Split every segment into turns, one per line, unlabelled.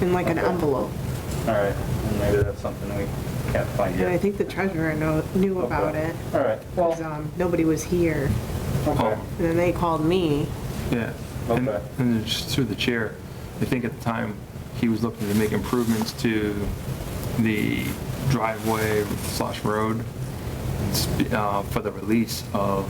in like an envelope.
All right, and maybe that's something we can't find yet.
And I think the treasurer know- knew
Okay.
about it,
All right,
because nobody was here.
okay,
And then they called me.
Yeah, and,
Okay.
and it's just through the chair, I think at the time, he was looking to make improvements to the driveway slash road s- uh, for the release of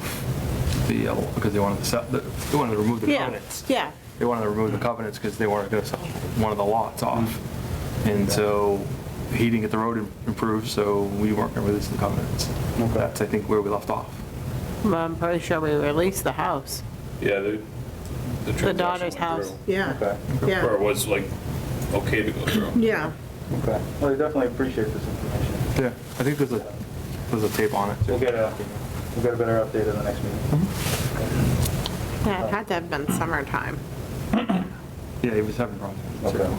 the, uh, because they wanted to sell, they wanted to remove the
Yeah,
covenants.
yeah.
They wanted to remove the covenants because they wanted to sell one of the lots off.
Mm-hmm.
And so he didn't get the road im- improved, so we weren't going to release the covenants.
Okay.
That's, I think, where we left off.
Well, I'm pretty sure we released the house,
Yeah, the, the
the
transaction
daughter's
went
house.
through.
Yeah,
okay,
Or
yeah,
was like, okay to go through.
yeah.
okay. Well, we definitely appreciate this information.
Yeah, I think there's a, there's a tape on it. too.
We'll get a, we'll get a better update in the next meeting.
Yeah, It had to have been summertime.
Yeah, he was having problems.
Okay.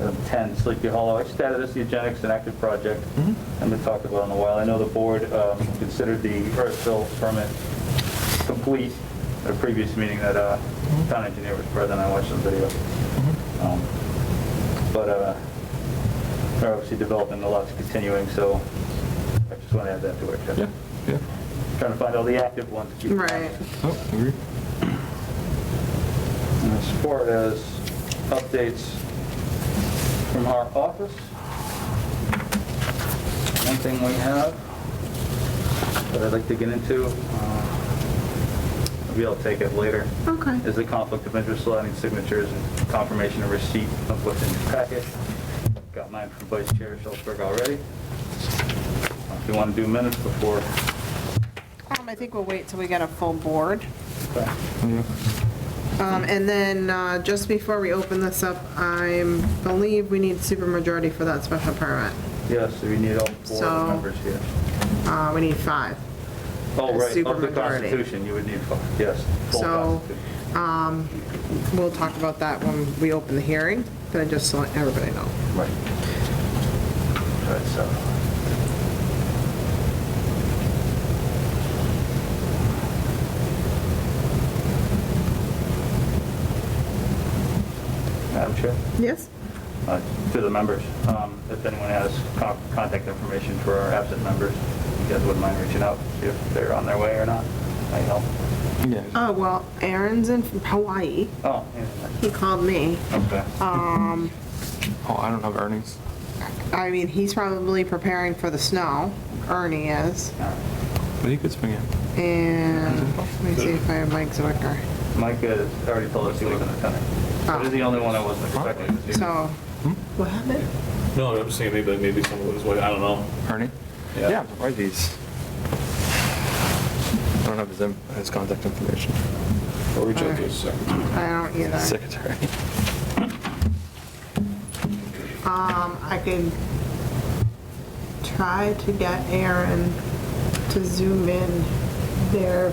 Item 10, um, Sleepy Hollow, I just added this to the Eugenics and Active Project. I've been talking about it in a while. I know the board um, considered the Earthville permit complete at a previous meeting that uh, town engineer was present. I watched the video. Um, But uh, they're obviously developing, the lot's continuing, so I just want to add that to it.
Yeah, yeah.
Trying to find all the active ones. to keep-
Right.
Oh, agree.
And As far as updates from our office, one thing we have that I'd like to get into, uh, maybe I'll take it later,
Okay.
is the conflict of interest signing signatures and confirmation of receipt of what's in your packet. Got mine from Vice Chair Schultzberg already. If you want to do minutes before,
Um, I think we'll wait till we get a full board.
okay.
Yeah.
Um, and then, uh, just before we open this up, I believe we need supermajority for that special permit.
yes, we need all four
So-
of the members here.
Uh, we need five.
Oh, right, of the
Supermajority.
Constitution, you would need five, yes. full
So-
Constitution.
We'll talk about that when we open the hearing, but I just want everybody to know.
Right. Right, so. Madam Chair?
Yes?
Uh, To the members, um, if anyone has con- contact information for our absent members, you guys wouldn't mind reaching out, see if they're on their way or not, I help.
Yeah.
Oh, well, Aaron's in Hawaii.
Oh,
He called me. Um,
yeah, okay.
Oh, I don't have earnings.
I mean, he's probably preparing for the snow, Ernie is,
All right.
But he could swing in.
and let me see if I have Mike Zwicker.
Mike has already told us he wasn't attending.
Oh.
He's the only one I wasn't expecting to see.
So,
Hmm?
what happened?
No, I'm just saying maybe, maybe someone was, I don't know.
Ernie?
Yeah.
Yeah, I'm surprised he's. I don't have his, in- his contact information.
I'll reach out to his secretary.
I don't either.
Secretary.
Um, I could try to get Aaron to zoom in. They're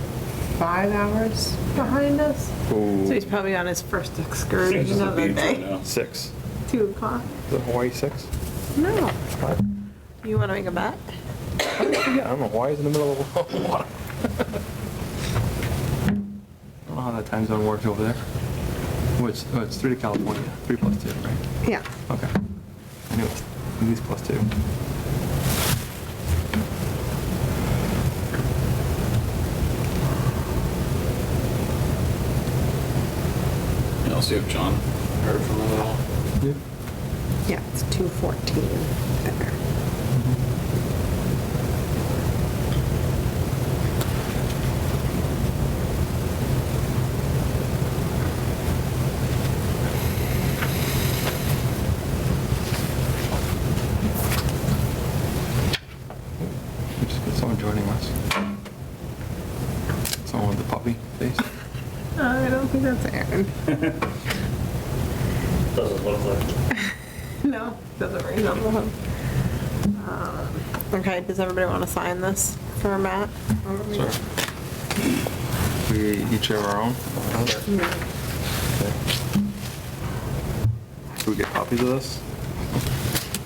five hours behind us. So he's probably on his first
Yeah,
excursion
just a
of the
beach right
day.
now.
Six.
Two o'clock.
Is it Hawaii six?
No.
Five?
You want to make a bet?
Yeah, I don't know. Hawaii's in the middle of the water. I don't know how that time zone works over there. Oh, it's, oh, it's three to California. Three plus two, right?
Yeah.
Okay. I knew it was at least plus two.
Yeah, I'll see if John heard from him at all.
Yeah.
Yeah, it's 2:14 there.
We just got someone joining us. Someone with the puppy face.
I don't think that's Aaron.
Doesn't look like.
No, doesn't resemble him. Um, Okay, does everybody want to sign this for Matt?
Sorry. We each have our own. Okay. Do we get copies of this?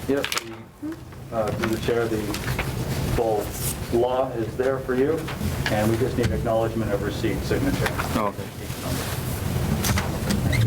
Yep. the, uh, Through the chair, the full law is there for you, and we just need acknowledgement of receipt signature.
Oh, okay.